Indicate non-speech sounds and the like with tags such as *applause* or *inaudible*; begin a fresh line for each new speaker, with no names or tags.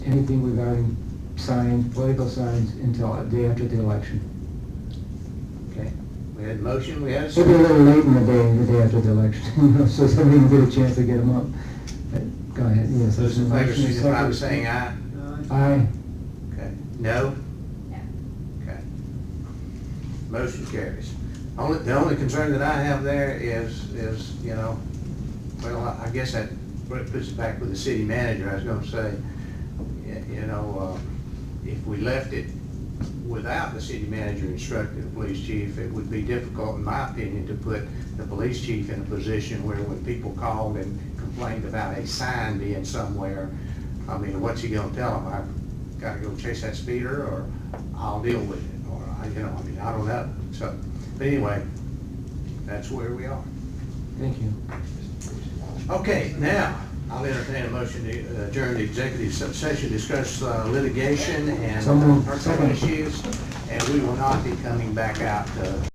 anything regarding signs, political signs until a day after the election. Okay?
We had a motion, we had a
It'll be a
second.
little late in the day, the day after the election, *laughs* you know, so somebody can get a chance to get them up. But Go ahead, yes.
Those in favor,
Motion is
signify by
second.
saying aye.
Aye.
Okay. No?
No.
Okay. Motion carries. Only, the only concern that I have there is, is, you know, well, I I guess that puts it back with the city manager, I was gonna say. y- You know, uh, if we left it without the city manager instructing the police chief, it would be difficult, in my opinion, to put the police chief in a position where when people called and complained about a sign being somewhere, I mean, what's he gonna tell them? I've gotta go chase that speeder, or I'll deal with it, or, I, you know, I mean, I don't know. So, but anyway, that's where we are.
Thank you.
Okay, now, I'll entertain a motion to adjourn the executive session, discuss uh, litigation and
So moved.
personal issues, and we will not be coming back out uh,